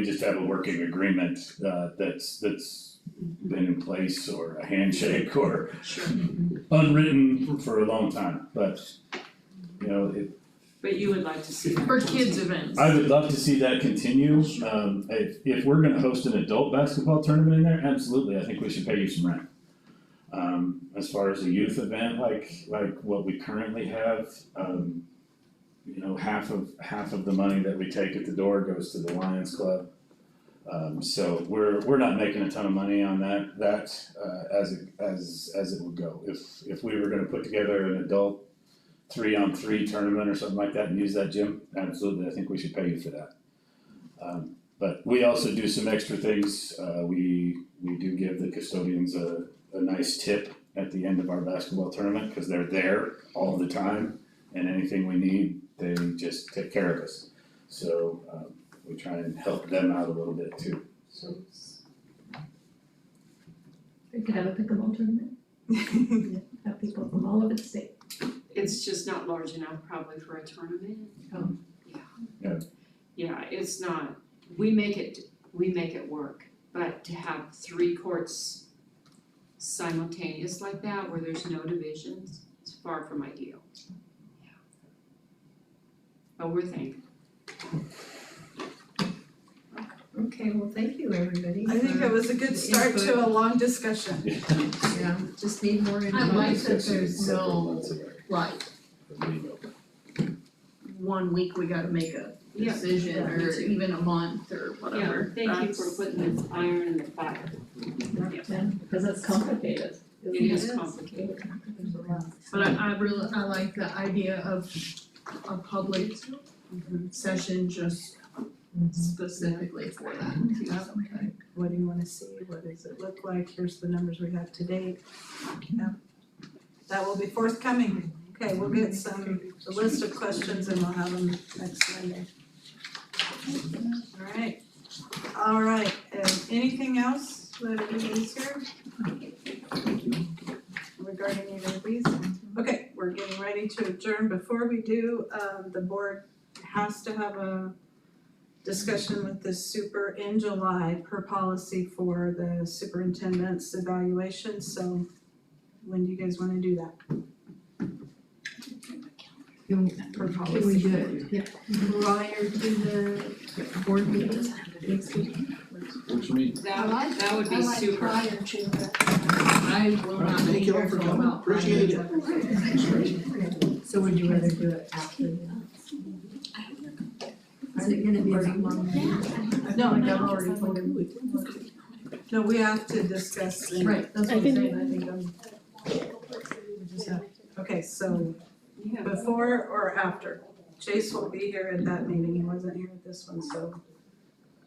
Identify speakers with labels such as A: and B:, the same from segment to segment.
A: We just have a working agreement uh that's that's been in place or a handshake or
B: Sure.
A: unwritten for a long time, but you know, it,
B: But you would like to see that.
C: For
B: continue.
C: kids events.
A: I would love to see that continue. Um if if we're gonna host an adult basketball tournament in there, absolutely, I think we should pay you some rent. Um as far as a youth event like like what we currently have, um you know, half of half of the money that we take at the door goes to the Lions Club. Um so we're we're not making a ton of money on that that uh as it as as it would go. If if we were gonna put together an adult three on three tournament or something like that and use that gym, absolutely, I think we should pay you for that. Um, but we also do some extra things, uh, we, we do give the custodians a, a nice tip at the end of our basketball tournament, cause they're there all the time. And anything we need, they just take care of us, so, um, we try and help them out a little bit too.
D: So it's-
E: We could have a pickleball tournament, have people from all over the state.
B: It's just not large enough probably for a tournament.
E: Oh.
B: Yeah.
A: Yeah.
B: Yeah, it's not, we make it, we make it work, but to have three courts simultaneous like that where there's no divisions, it's far from ideal. Yeah. But we're thankful.
D: Okay, well, thank you, everybody.
F: I think it was a good start to a long discussion. Yeah.
D: Just need more info.
E: I like that
A: Discussed it
E: there's
A: several
E: no-
A: months ago,
E: Like,
A: the meeting.
E: one week we gotta make a
B: Yeah.
E: decision,
B: yeah, me
E: or
B: too.
E: even a month, or
B: Yeah,
E: whatever.
B: thank you for putting this iron in the fire.
D: Because it's complicated.
B: It is complicated.
E: But I, I really, I like the idea of a public session just specifically for that.
F: Yeah. What do you wanna see? What does it look like? Here's the numbers we have to date. Yeah. That will be forthcoming. Okay, we'll get some, a list of questions and we'll have them next Monday. Alright, alright, um anything else that everybody's here? Regarding either of these? Okay, we're getting ready to adjourn. Before we do, um the board has to have a discussion with the super in July per policy for the superintendent's evaluation, so when do you guys wanna do that?
E: For Can we do it prior to the board meeting next week?
B: That, that would be super.
E: I will not be
G: Thank you all
E: here
G: for
E: till
G: coming.
E: about five
G: Appreciate
E: o'clock.
H: So would you rather do it after that? Is it gonna be a long meeting?
E: No, I got already told him.
F: No, we have to discuss in-
E: Right, that's what I'm saying, I think I'm.
F: okay, so
B: Yeah.
F: before or after? Chase will be here at that meeting, he wasn't here at this one, so.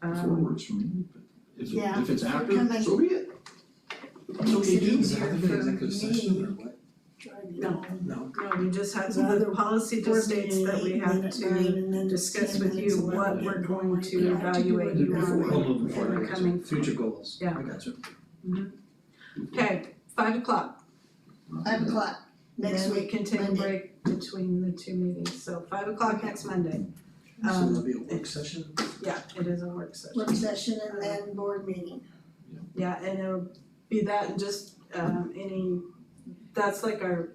G: Four
F: Um,
G: words for me, but if it,
H: Yeah,
G: if it's
H: coming.
G: after, so be it. So
H: Makes
G: we
H: it
G: do, is
H: easier
G: that the
H: for
G: executive session or what? No.
F: no, we just had, the policy just states that we have to discuss with you what we're going to evaluate you on.
G: Before, hold on, before, I got you.
F: Coming.
G: future goals, I
F: Yeah. Mm-hmm.
G: got you.
F: Okay, five o'clock.
H: Five o'clock next
F: Then we
H: week.
F: can take a
H: Monday.
F: break between the two meetings, so five o'clock next Monday.
G: So
F: Um,
G: there'll be a work session,
F: yeah, it is a work session,
H: Work session and then board meeting.
F: yeah, and it'll be that and just um any, that's like our,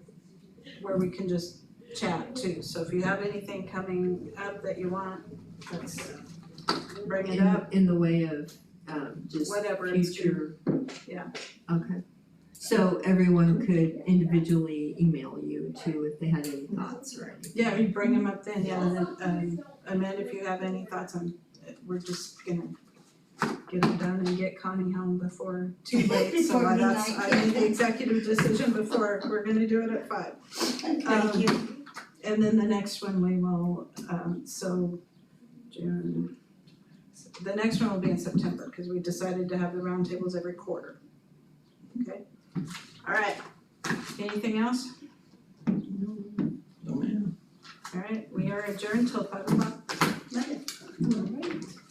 F: where we can just chat too, so if you have anything coming up that you want, let's bring it up,
H: In the way of um just
F: whatever it's.
H: future.
F: Yeah.
H: Okay. So everyone could individually email you too if they had any thoughts or anything.
F: Yeah, you bring them up then, yeah, and then um Amanda, if you have any thoughts on, we're just gonna get it done and get Connie home before too late, so
H: Before
F: I- that's,
H: midnight.
F: I need the executive decision before, we're gonna do it at five.
H: Thank
F: Um,
H: you.
F: And then the next one we will, um so June, the next one will be in September, cause we decided to have the roundtables every quarter. Okay, alright, anything else?
G: no man.
F: Alright, we are adjourned till five o'clock.
H: Love it.